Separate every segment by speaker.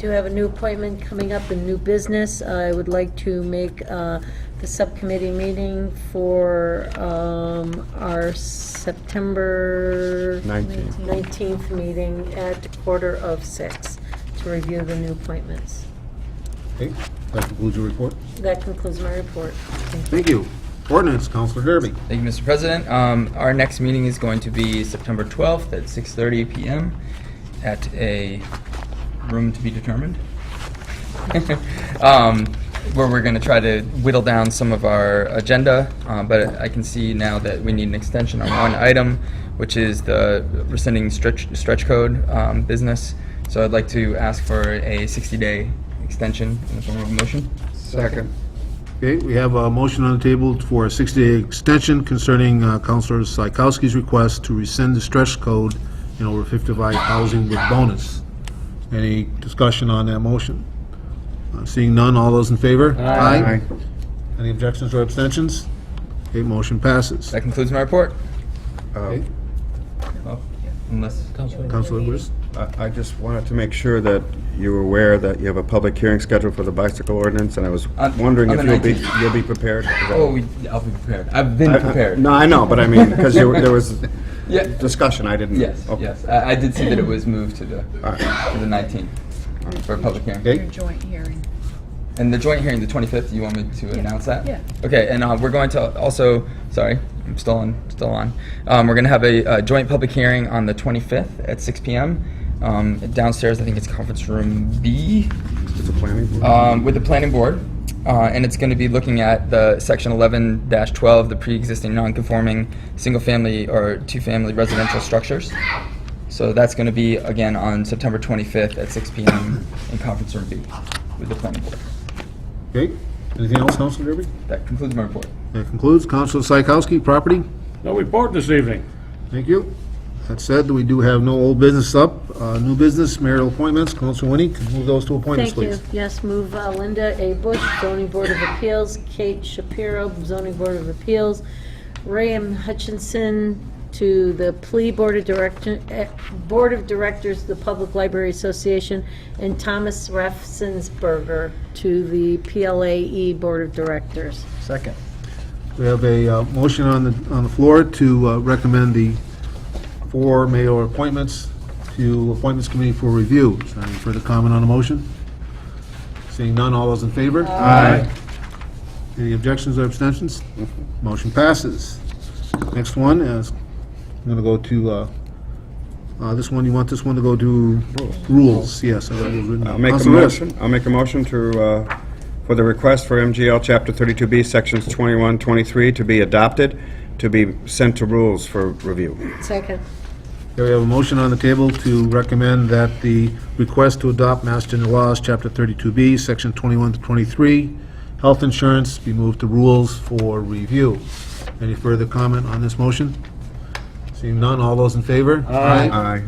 Speaker 1: Do have a new appointment coming up in new business. I would like to make uh, the subcommittee meeting for um, our September...
Speaker 2: 19th.
Speaker 1: 19th meeting at quarter of six to review the new appointments.
Speaker 2: Okay, that concludes your report.
Speaker 1: That concludes my report. Thank you.
Speaker 2: Thank you. Ordinance, Counselor Derby.
Speaker 3: Thank you, Mr. President. Um, Our next meeting is going to be September 12th at 6:30 PM at a room to be determined, Um, where we're going to try to whittle down some of our agenda, uh, but I can see now that we need an extension on one item, which is the rescinding stretch stretch code um, business. So I'd like to ask for a 60-day extension in the form of a motion.
Speaker 2: Second. Okay, we have a motion on the table for a 60-day extension concerning uh, Counselor Psychowski's request to rescind the stretch code in over 55 housing with bonus. Any discussion on that motion? Uh, Seeing none, all those in favor? Aye. Any objections or abstentions? Okay, motion passes.
Speaker 3: That concludes my report.
Speaker 2: Okay,
Speaker 3: Oh, Unless...
Speaker 2: Counselor Lewis?
Speaker 4: I- I just wanted to make sure that you were aware that you have a public hearing scheduled for the bicycle ordinance, and I was
Speaker 3: On-
Speaker 4: wondering
Speaker 3: on
Speaker 4: if
Speaker 3: the
Speaker 4: you'll be,
Speaker 3: 19th.
Speaker 4: you'll be prepared. for that.
Speaker 3: Oh, we, I'll be prepared. I've been
Speaker 4: I- I-
Speaker 3: prepared.
Speaker 4: No, I know, but I mean, because there was
Speaker 3: Yeah.
Speaker 4: discussion, I didn't.
Speaker 3: Yes.
Speaker 4: okay.
Speaker 3: Yes. I, I did see that it was moved to the
Speaker 4: All right.
Speaker 3: to the 19th for a public hearing.
Speaker 2: Okay.
Speaker 5: joint hearing.
Speaker 3: And the joint hearing, the 25th. You want me to announce that?
Speaker 5: Yeah.
Speaker 3: Okay. And uh, we're going to also. Sorry, I'm still on. Still on. Um, we're going to have a, uh joint public hearing on the 25th at 6 p.m. Um, downstairs, I think it's conference room B.
Speaker 4: It's a planning board.
Speaker 3: um, with the planning board, uh, and it's going to be looking at the section 11-12, the pre-existing non-conforming single-family or two-family residential structures. So that's going to be again on September 25th at 6 p.m. in conference room B with the planning board.
Speaker 2: Okay, anything else, Counselor Derby?
Speaker 3: That concludes my report.
Speaker 2: That concludes. Counselor Psychowski, property?
Speaker 6: No report this evening.
Speaker 2: Thank you. That said, we do have no old business up. Uh, New business, marital appointments, Counselor Winnie, can move those to appointments,
Speaker 1: Thank you.
Speaker 2: please.
Speaker 1: Yes, move uh, Linda A. Bush, zoning board of appeals, Kate Shapiro, zoning board of appeals, Ray M. Hutchinson to the plea board of director, eh, board of directors, of the Public Library Association, and Thomas Refsensberger to the PLAE E board of directors.
Speaker 4: Second.
Speaker 2: We have a uh, motion on the, on the floor to uh, recommend the four mayor appointments to Appointments Committee for review. Is there any further comment on the motion? Seeing none, all those in favor? Aye. Any objections or abstentions? Motion passes. Next one is, I'm going to go to, uh, uh, this one, you want this one to go to rules? Yes. I got rules written down.
Speaker 4: I'll make a
Speaker 2: Counselor Lewis.
Speaker 4: motion, I'll make a motion to, uh, for the request for MGL Chapter 32B, Sections 21, 23, to be adopted, to be sent to rules for review.
Speaker 1: Second.
Speaker 2: Okay, we have a motion on the table to recommend that the request to adopt Mass General Laws, Chapter 32B, Section 21 to 23, health insurance be moved to rules for review. Any further comment on this motion? Seeing none, all those in favor?
Speaker 4: Aye.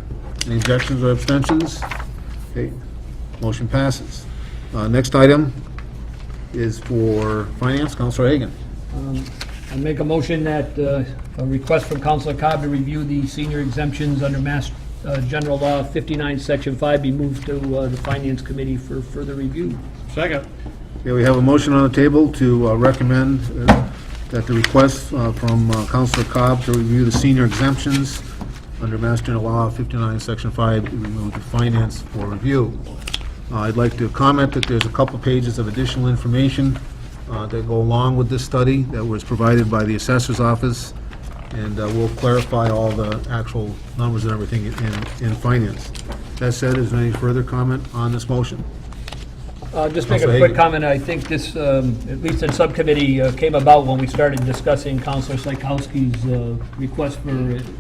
Speaker 2: Any objections or abstentions? Okay, motion passes. Uh, Next item is for Finance, Counselor Hagan.
Speaker 7: I make a motion that uh, a request from Counselor Cobb to review the senior exemptions under Mass uh, General Law 59, Section 5 be moved to uh, the Finance Committee for further review.
Speaker 6: Second.
Speaker 2: Okay, we have a motion on the table to uh, recommend uh, that the request uh, from uh, Counselor Cobb to review the senior exemptions under Mass General Law 59, Section 5, be removed to finance for review. Uh, I'd like to comment that there's a couple pages of additional information uh, that go along with this study that was provided by the Assessor's Office, and uh, we'll clarify all the actual numbers and everything in, in finance. That said, is there any further comment on this motion?
Speaker 7: Uh, Just make
Speaker 2: Counselor
Speaker 7: a
Speaker 2: Hagan.
Speaker 7: quick comment, I think this, um, at least in subcommittee, uh, came about when we started discussing Counselor Psychowski's uh, request for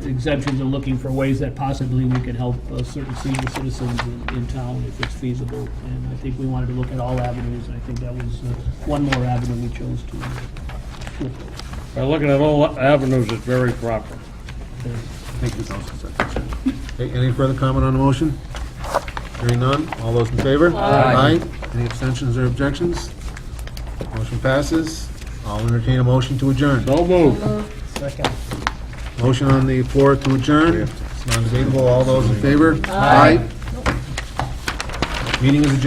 Speaker 7: exemptions and looking for ways that possibly we could help uh, certain senior citizens in- in town if it's feasible. And I think we wanted to look at all avenues, and I think that was uh, one more avenue we chose to to approach.
Speaker 6: By looking at all avenues, it's very proper.
Speaker 2: Thank you, Counselor Sexton. Okay, Any further comment on the motion? Hearing none, all those in favor?
Speaker 3: Aye.
Speaker 2: Any abstentions or objections? Motion passes. I'll entertain a motion to adjourn.
Speaker 6: No move.
Speaker 2: Motion on the floor to adjourn. It's non-debatable, all those in favor? Aye. Meeting is adjourned.